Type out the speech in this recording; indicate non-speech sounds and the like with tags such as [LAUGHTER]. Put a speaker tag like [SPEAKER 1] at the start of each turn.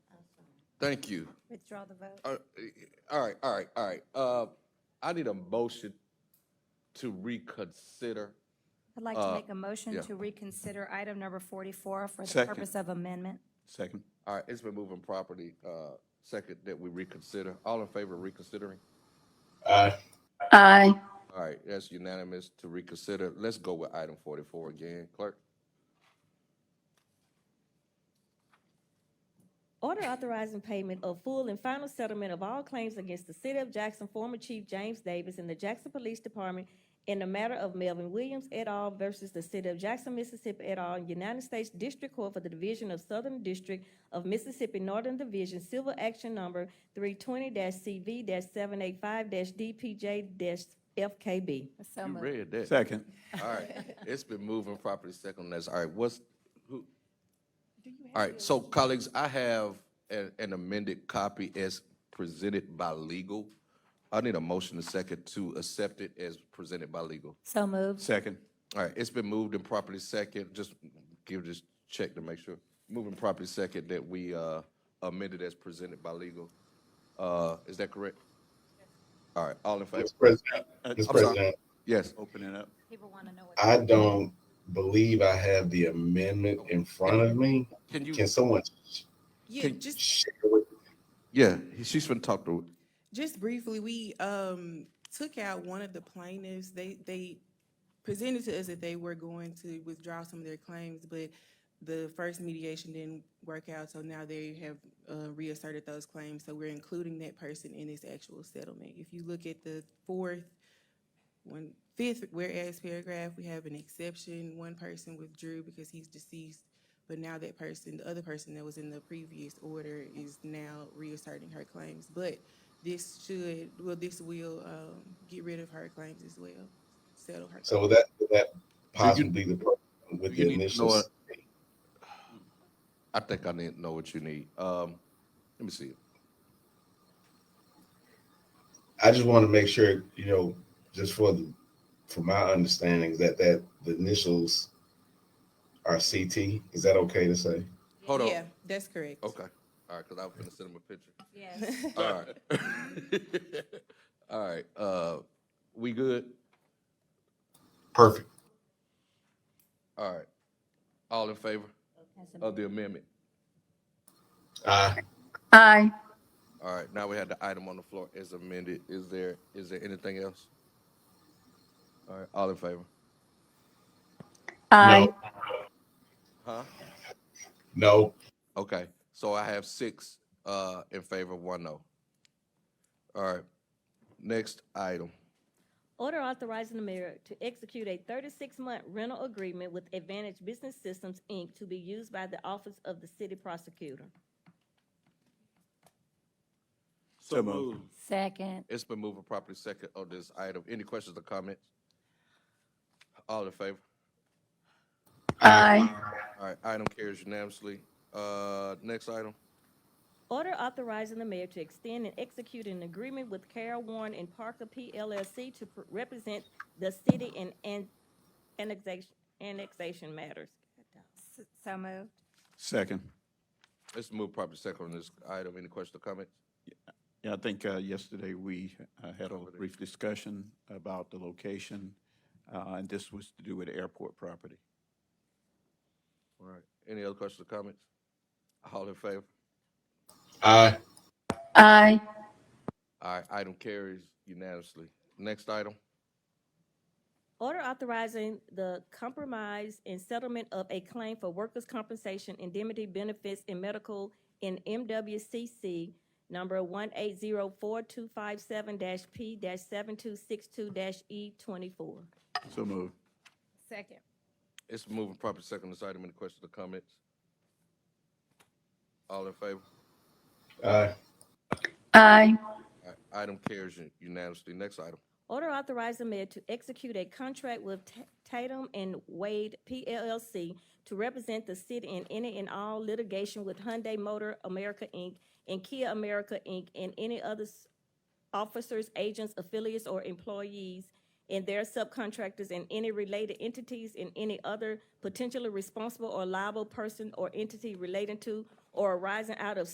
[SPEAKER 1] Thank you.
[SPEAKER 2] Withdraw the vote.
[SPEAKER 1] Uh, All right, all right, all right. Uh, I need a motion to reconsider.
[SPEAKER 2] I'd like to make a motion
[SPEAKER 1] Uh, yeah.
[SPEAKER 2] to reconsider item number 44 for the
[SPEAKER 3] Second.
[SPEAKER 2] purpose of amendment.
[SPEAKER 3] Second.
[SPEAKER 1] All right, it's been moving property, uh, second that we reconsider. All in favor of reconsidering?
[SPEAKER 3] Aye.
[SPEAKER 4] Aye.
[SPEAKER 1] All right, that's unanimous to reconsider. Let's go with item forty-four again, clerk.
[SPEAKER 5] Order authorizing payment of full and final settlement of all claims against the City of Jackson former Chief James Davis and the Jackson Police Department in the matter of Melvin Williams et al. versus the City of Jackson, Mississippi et al. United States District Court for the Division of Southern District of Mississippi Northern Division Civil Action Number three twenty CV seven eight five DPJ FKB.
[SPEAKER 2] So
[SPEAKER 1] You
[SPEAKER 2] moved.
[SPEAKER 1] read that.
[SPEAKER 3] Second.
[SPEAKER 1] All right, it's been moving property second that's All right, what's, who? All right, so colleagues, I have an an amended copy as presented by legal. I need a motion to second to accept it as presented by legal.
[SPEAKER 2] So moved.
[SPEAKER 3] Second.
[SPEAKER 1] All right, it's been moved and properly second, just give this check to make sure. Moving properly second that we uh, amended as presented by legal. Uh, Is that correct? All right, all in favor?
[SPEAKER 6] Mr. President,
[SPEAKER 3] Uh,
[SPEAKER 6] Mr.
[SPEAKER 3] I'm sorry.
[SPEAKER 6] President,
[SPEAKER 1] Yes,
[SPEAKER 3] Open it up.
[SPEAKER 2] People want to know what.
[SPEAKER 6] I don't believe I have the amendment in front of me.
[SPEAKER 1] can you,
[SPEAKER 6] Can someone
[SPEAKER 7] Yeah,
[SPEAKER 1] Can-
[SPEAKER 7] just
[SPEAKER 6] share with
[SPEAKER 1] yeah, she's been talked to.
[SPEAKER 7] just briefly, we um took out one of the plaintiffs. They they presented to us that they were going to withdraw some of their claims, but the first mediation didn't work out, so now they have uh, reasserted those claims. So we're including that person in this actual settlement. If you look at the fourth, one fifth, whereas paragraph, we have an exception. One person withdrew because he's deceased, but now that person, the other person that was in the previous order, is now reasserting her claims. But this should, well, this will um, get rid of her claims as well, settle her.
[SPEAKER 6] So that, that possibly the person with
[SPEAKER 1] You
[SPEAKER 6] the
[SPEAKER 1] need to
[SPEAKER 6] initial.
[SPEAKER 1] know it. I think I need to know what you need. Um, Let me see. it.
[SPEAKER 6] I just want to make sure, you know, just for the, for my understanding, that, that the initials are CT. Is that okay to say?
[SPEAKER 1] Hold on.
[SPEAKER 7] Yeah, that's correct.
[SPEAKER 1] Okay, all right, because I was gonna send him a picture.
[SPEAKER 2] Yes.
[SPEAKER 1] [LAUGHS] All right. [LAUGHS] All right, uh, we good?
[SPEAKER 6] Perfect.
[SPEAKER 1] All right. All in favor of the amendment?
[SPEAKER 6] Uh,
[SPEAKER 4] Aye.
[SPEAKER 1] All right, now we have the item on the floor as amended. Is there, is there anything else? All right, all in favor?
[SPEAKER 4] Aye.
[SPEAKER 6] no,
[SPEAKER 1] Huh?
[SPEAKER 6] no,
[SPEAKER 1] Okay, so I have six, uh, in favor, one no. All right, next item.
[SPEAKER 5] Order authorizing the mayor to execute a thirty-six month rental agreement with Advantage Business Systems, Inc. to be used by the Office of the City Prosecutor.
[SPEAKER 3] So moved.
[SPEAKER 2] Second.
[SPEAKER 1] It's been moved and properly second on this item. Any questions or comments? All in favor?
[SPEAKER 4] Aye.
[SPEAKER 1] All right, item carries unanimously. Uh, next item.
[SPEAKER 5] Order authorizing the mayor to extend and execute an agreement with Carol Warren and Parker PLLC to pr- represent the city in an- annexation, annexation matters.
[SPEAKER 2] So moved.
[SPEAKER 3] Second.
[SPEAKER 1] Let's move properly second on this item. Any questions or comments?
[SPEAKER 3] Yeah, I think uh, yesterday we uh, had a brief discussion about the location, uh, and this was to do with airport property.
[SPEAKER 1] All right. Any other questions or comments? All in favor?
[SPEAKER 6] uh,
[SPEAKER 4] Aye.
[SPEAKER 1] All right, item carries unanimously. Next item.
[SPEAKER 5] Order authorizing the compromise and settlement of a claim for workers' compensation indemnity benefits and medical in MWCC number one eight zero four two five seven P seven two six two E twenty-four.
[SPEAKER 3] So moved.
[SPEAKER 2] Second.
[SPEAKER 1] It's moving properly second on this item. Any questions or comments? All in favor?
[SPEAKER 6] uh,
[SPEAKER 4] Aye.
[SPEAKER 1] All right, Item carries unanimously. Next item.
[SPEAKER 5] Order authorizing mayor to execute a contract with Ta- Tatum and Wade PLLC to represent the city in any and all litigation with Hyundai Motor America, Inc. and Kia America, Inc. and any other s- officers, agents, affiliates, or employees and their subcontractors and any related entities and any other potentially responsible or liable person or entity relating to or arising out of